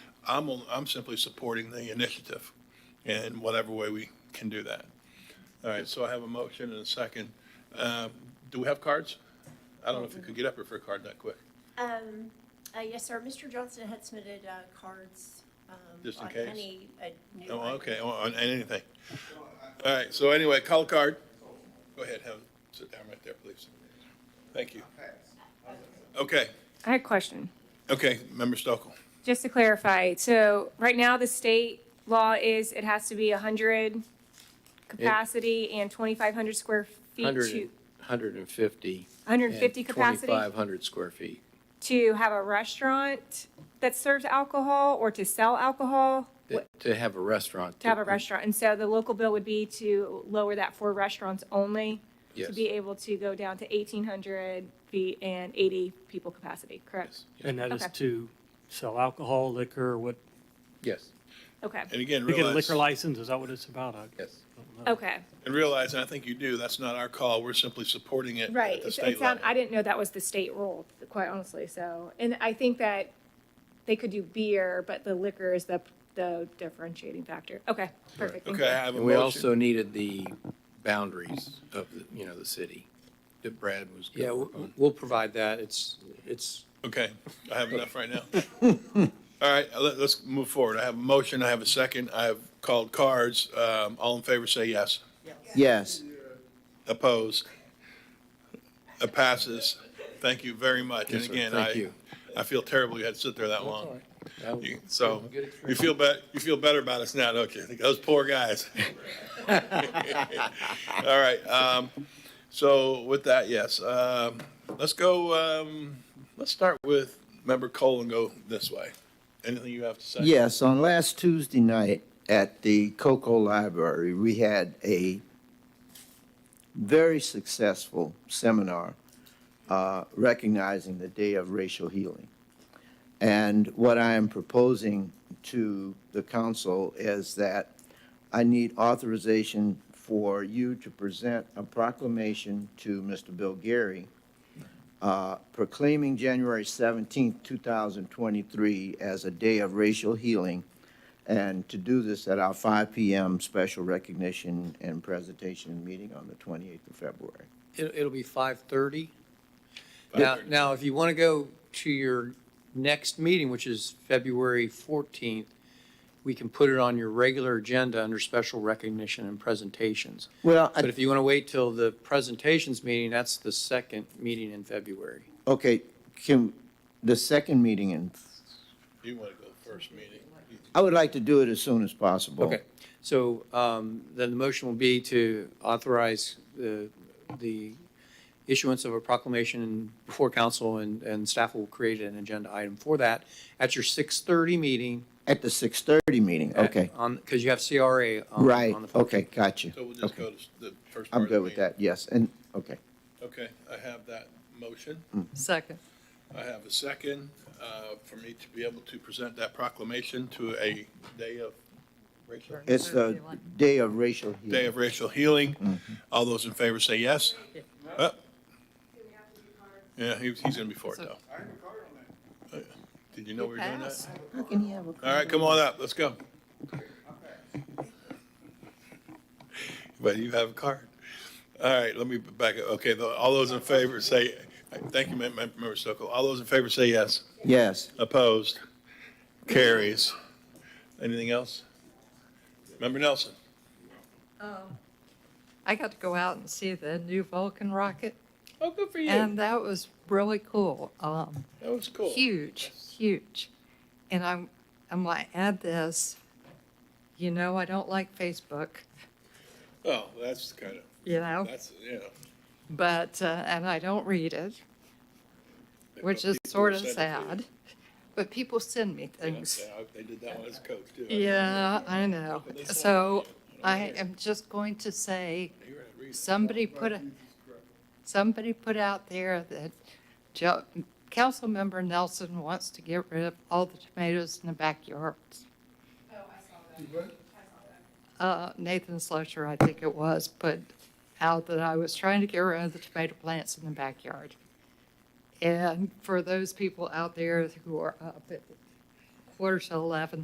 I'm, on- I'm simply supporting the initiative in whatever way we can do that. All right, so I have a motion and a second. Uh, Do we have cards? I don't know if you could get up here for a card that quick, Um, uh, yes, sir, Mr. Johnson had submitted, uh, cards, um. Just in on case. Any, uh, new. Oh, item. okay, on on anything. All right, so anyway, call a card. Go ahead, have, sit down right there, please. Thank you. Okay, I had a question, okay, Member Stokel. just to clarify. So right now, the state law is it has to be 100 capacity and 2,500 square feet to, 150. 150 capacity 2,500 square feet. to have a restaurant that serves alcohol or to sell alcohol, that- To have a restaurant. to have a restaurant. And so the local bill would be to lower that for restaurants only, to Yes. be able to go down to 1,800 feet and 80 people capacity, correct? And that is Okay. to sell alcohol, liquor, what, Yes, Okay, And again, to get a liquor realize, license, is that what it's about? I yes. don't know. okay. and realize, and I think you do, that's not our call. We're simply supporting it Right, at the it's- state it sound, I level. didn't know that was the state rule, quite honestly, so, and I think that they could do beer, but the liquor is the, the differentiating factor. Okay, perfect, thank Okay, I you. have a And we motion. also needed the boundaries of, the you know, the city that Brad was. Yeah, going w- on. we'll provide that. It's, it's, Okay, I have enough right now. All right, let, us move forward. I have a motion, I have a second, I have called cards. Um, all in favor, say yes. Yes. Opposed? It passes. Thank you very much. And Yes, sir. again, Thank I, you. I feel terrible you had to sit there that long. That was- You- So, Good you experience. feel bet, you feel better about us now, don't you? Those poor guys. All right, um, so with that, yes, um, let's go, um, let's start with member Cole and go this way. Anything you have to say? Yes, on last Tuesday night at the Coco Library, we had a very successful seminar uh, recognizing the Day of Racial Healing. And what I am proposing to the council is that I need authorization for you to present a proclamation to Mr. Bill Gary uh, proclaiming January 17, 2023 as a day of racial healing, and to do this at our 5 PM special recognition and presentation meeting on the 28th of February. it'll, it'll be five thirty. Now, 5:30. now, if you want to go to your next meeting, which is February fourteenth, we can put it on your regular agenda under special recognition and presentations. Well, But if you want to wait till the presentations meeting, that's the second meeting in February. okay, Kim, the second meeting, and You want to go first meeting? I would like to do it as soon as possible. Okay, so um, then the motion will be to authorize the, the issuance of a proclamation before council, and, and staff will create an agenda item for that at your 6:30 meeting. At the 6:30 meeting, at- okay. On, because you have CRA. on- Right, on the okay, 14th. got you. So we'll just Okay. go to s- the first part I'm of the good with meeting. that, yes, and, okay. Okay, I have that motion. Second. I have a second uh, for me to be able to present that proclamation to a day of racial, It's the day of racial healing. day of racial healing. All those in favor say yes. Uh, Yeah, he- he's going to be for it, though. Uh, Did you know we were doing that? Pass. How can he have a? All right, come on up, let's go. But you have a card. All right, let me back up. Okay, the- all those in favor say, thank you, Mem- Mem- Member Sokol. All those in favor say yes. Yes. Opposed? Carries. Anything else? Member Nelson? I got to go out and see the new Vulcan rocket, Oh, good for and that was really cool. Um, That was cool. huge, huge. And I'm, I'm gonna add this. You know, I don't like Facebook, Oh, that's kind of, you know, that's, yeah. but, uh, and I don't read it, which is People sort of send it to sad. you. But people send me Yeah, things. yeah, They did that one as coach, too. Yeah, I know. But they send it to So you. I am just going to say, You're gonna read it. Somebody put, a- somebody put out there that Jo- Councilmember Nelson wants to get rid of all the tomatoes in the backyards. Oh, Uh, Nathan Slusher, I think it was, put out that I was trying to get rid of the tomato plants in the backyard. And for those people out there who are up at quarter to 11,